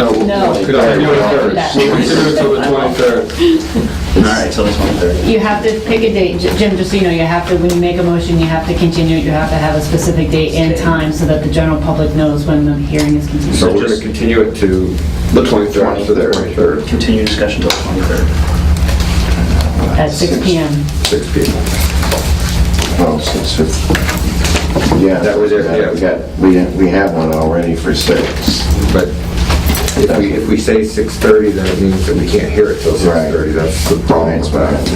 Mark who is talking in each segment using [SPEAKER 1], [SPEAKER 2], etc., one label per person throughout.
[SPEAKER 1] No.
[SPEAKER 2] No.
[SPEAKER 1] Could I do it
[SPEAKER 2] That-
[SPEAKER 1] first? We'll consider it till the 23rd.
[SPEAKER 3] All right, till the 23rd.
[SPEAKER 2] You have to pick a date, J- Jim, just so you know, you have to, when you make a motion, you have to continue, it. you have to have a specific date and time so that the general public knows when the hearing is continued.
[SPEAKER 1] So we're going to continue it to the 23rd, so the 23rd,
[SPEAKER 3] Continue discussion till the 23rd.
[SPEAKER 2] At 6 PM.
[SPEAKER 1] 6 p.m.
[SPEAKER 4] Oh, six fifty. Yeah.
[SPEAKER 1] That was it, yeah.
[SPEAKER 4] We got, we, we have one already for six.
[SPEAKER 1] But if we, if we say 6:30, then it means that we can't hear it till
[SPEAKER 4] Right.
[SPEAKER 1] 6:30. That's the problem
[SPEAKER 4] That's
[SPEAKER 1] with
[SPEAKER 4] what I
[SPEAKER 1] that.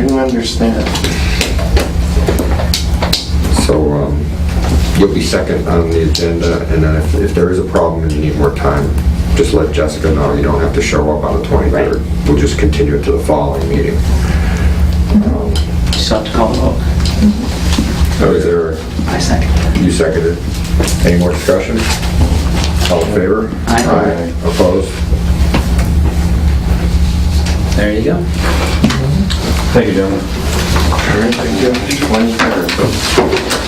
[SPEAKER 4] understand. I do understand.
[SPEAKER 1] So um, you'll be second on the agenda, and then if, if there is a problem and you need more time, just let Jessica know. You don't have to show up on the 23rd. We'll just continue it to the following meeting. Um,
[SPEAKER 3] Just have to call the vote.
[SPEAKER 1] So is there,
[SPEAKER 3] I second.
[SPEAKER 1] you seconded. Any more discussion? All in favor?
[SPEAKER 3] Aye.
[SPEAKER 1] Opposed?
[SPEAKER 3] There you go.
[SPEAKER 5] Thank you, gentlemen.
[SPEAKER 4] Twenty-third.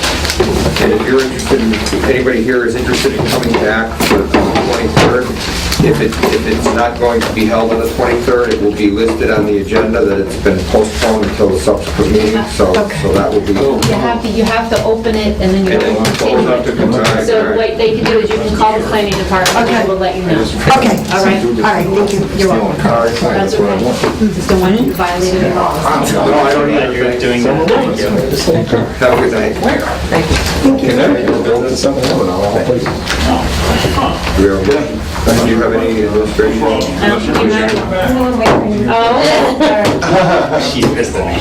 [SPEAKER 1] And if you're interested, in if anybody here is interested in coming back for the 23rd, if it, if it's not going to be held on the 23rd, it will be listed on the agenda that it's been postponed until the subsequent meeting, so, so that will be...
[SPEAKER 6] You have to, you have to open it and then you
[SPEAKER 1] And then
[SPEAKER 6] have to
[SPEAKER 1] close up to
[SPEAKER 6] continue
[SPEAKER 1] the
[SPEAKER 6] it.
[SPEAKER 1] time.
[SPEAKER 6] So what they can do is you can call the planning department and we'll let you know.
[SPEAKER 7] Okay,
[SPEAKER 6] All right?
[SPEAKER 7] all right, thank you. You're welcome.
[SPEAKER 6] That's
[SPEAKER 2] Mm-hmm.
[SPEAKER 6] okay. Just don't want you to violate any laws.
[SPEAKER 1] No, I don't
[SPEAKER 3] Glad
[SPEAKER 1] either.
[SPEAKER 3] you're doing that. Thank you.
[SPEAKER 1] Have a good night. Do we have- do you have any administration?
[SPEAKER 6] I don't think Um, you have- Oh, all right.
[SPEAKER 3] She missed the name.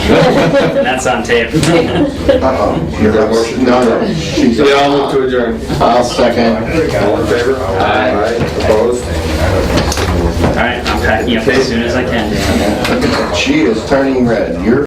[SPEAKER 3] That's on tape.
[SPEAKER 1] You have a motion?
[SPEAKER 4] No, no, she's,
[SPEAKER 1] Yeah, I'll move to adjourn.
[SPEAKER 4] I'll second.
[SPEAKER 1] All in favor? Aye. Opposed?
[SPEAKER 3] All right, I'm packing up as soon as I can, Dan.
[SPEAKER 4] She is turning red. You're